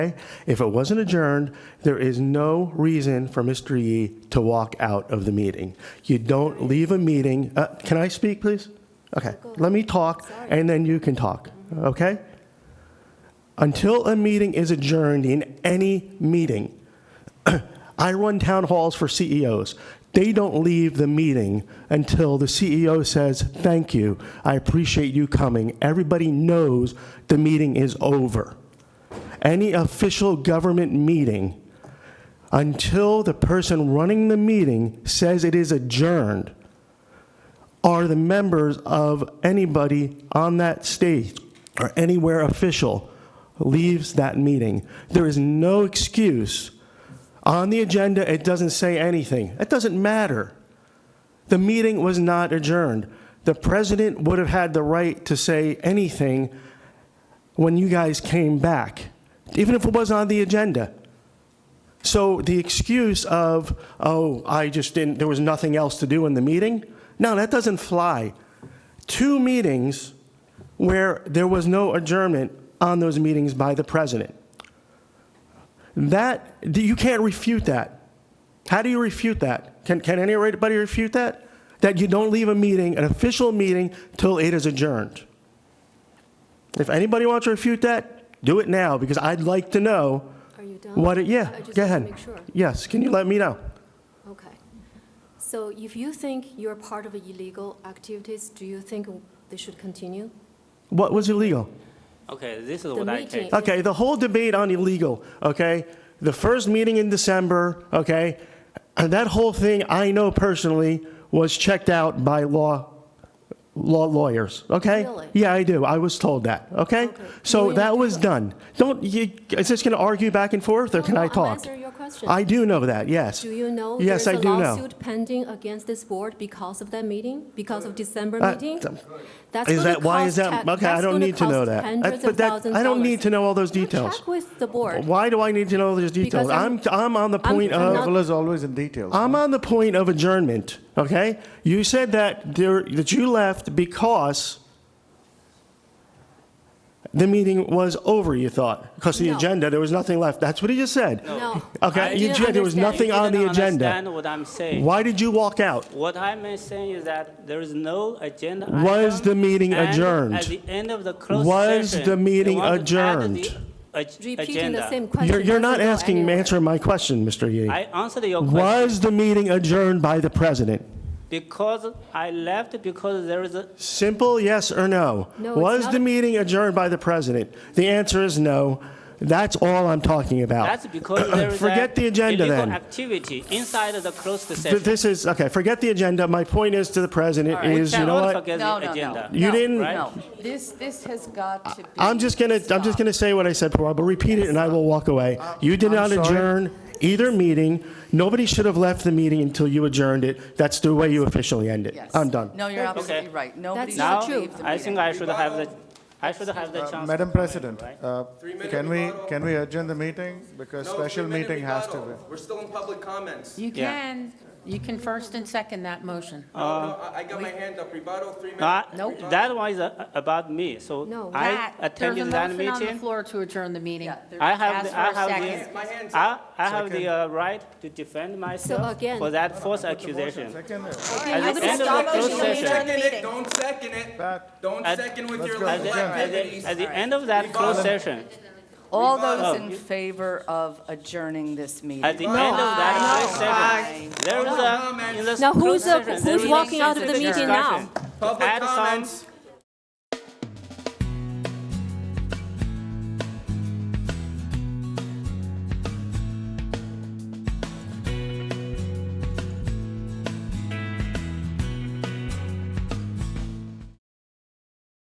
Okay? If it wasn't adjourned, there is no reason for Mr. Yee to walk out of the meeting. You don't leave a meeting, uh, can I speak, please? Okay, let me talk, and then you can talk, okay? Until a meeting is adjourned in any meeting, I run town halls for CEOs. They don't leave the meeting until the CEO says, "Thank you, I appreciate you coming." Everybody knows the meeting is over. Any official government meeting, until the person running the meeting says it is adjourned, are the members of anybody on that stage or anywhere official leaves that meeting. There is no excuse. On the agenda, it doesn't say anything. It doesn't matter. The meeting was not adjourned. The president would have had the right to say anything when you guys came back, even if it was on the agenda. So the excuse of, oh, I just didn't, there was nothing else to do in the meeting? No, that doesn't fly. Two meetings where there was no adjournment on those meetings by the president. That, you can't refute that. How do you refute that? Can, can anybody refute that? That you don't leave a meeting, an official meeting, till it is adjourned? If anybody wants to refute that, do it now, because I'd like to know Are you done? what, it- yeah, I go just want to ahead. make sure. Yes, can you let me know? Okay. So if you think you're part of illegal activities, do you think they should continue? What was illegal? Okay, this is The what I meeting- can. Okay, the whole debate on illegal, okay? The first meeting in December, okay? And that whole thing, I know personally, was checked out by law, law lawyers, okay? Really? Yeah, I do. I was told that, okay? Okay. So You that know- was done. Don't, you, is this going to argue back and forth, or No, can no, I I'm talk? answering your question. I do know that, yes. Do you know Yes, there's I a do know. lawsuit pending against this board because of that meeting, because of December Uh, meeting? th- That's Is gonna that, why is cost that, ta- okay, I that's don't gonna need to know cost that. Hundreds That- of But that, thousands I don't need to dollars. know all those You details. Check with the board. Why do I need to know those details? I'm, I'm- I'm on the I'm- point I'm of. not- Devil is always in details. I'm on the point of adjournment, okay? You said that there, that you left because the meeting was over, you thought, because the No. agenda, there was nothing left. That's what he just said. No. Okay, I you didn't said there was understand. nothing on the You didn't agenda. understand what I'm saying. Why did you walk out? What I'm saying is that there is no agenda item. Was the meeting and adjourned? At the end of the closed Was session. the meeting they want to add the adjourned? ag- Repeating agenda. the same question. You're, you're doesn't not go asking, anywhere. answering my question, Mr. Yee. I answered your question. Was the meeting adjourned by the president? Because I left because there is a, Simple yes or no. No, it's Was not the a- meeting adjourned by the president? The answer is no. That's all I'm talking about. that's because there is a. Uh, Forget the agenda illegal then. Activity inside the closed Th- session. This is, okay, forget the agenda. My point is to the president We is, you know cannot what? forget No, the no, agenda. no. You No, didn't- No, this, this has got to be. I'm just gonna, I'm just stopped. gonna say what I said before. I'll repeat it and I will walk away. You did I'm not sorry. adjourn either meeting. Nobody should have left the meeting until you adjourned it. That's the way you officially end it. Yes. I'm done. No, you're absolutely right. That's Nobody should not Now, true. leave the I think meeting. I should have the, I should have the chance. to Uh, Madam comment, President, right? uh, can we, can we adjourn the meeting? Because No, special three-minute meeting has to be. rebuttal. We're still in public comments. You Yeah. can, you can first and second that motion. No, no, I- I got my hand up, rebuttal, three Uh, No, I- minutes. Ah, that one is uh, about me, so No. I That- attended that There's a motion on the meeting. floor to adjourn the meeting. I have, Ask the- for I a have second. My hand's the, I, I have the Second. uh, right to defend myself again- for that false accusation. Second, At the end of the stop closed motion session, Second it, don't second it. Pat, Don't At- second with your at legal the, at activities. the, at the end of that closed session, All those Oh. in favor of adjourning this meeting? at the end of that closed session, there was a, in this Now, closed who's, the- session, there who's was walking out of the a meeting now? discussion. Public Add some- comments.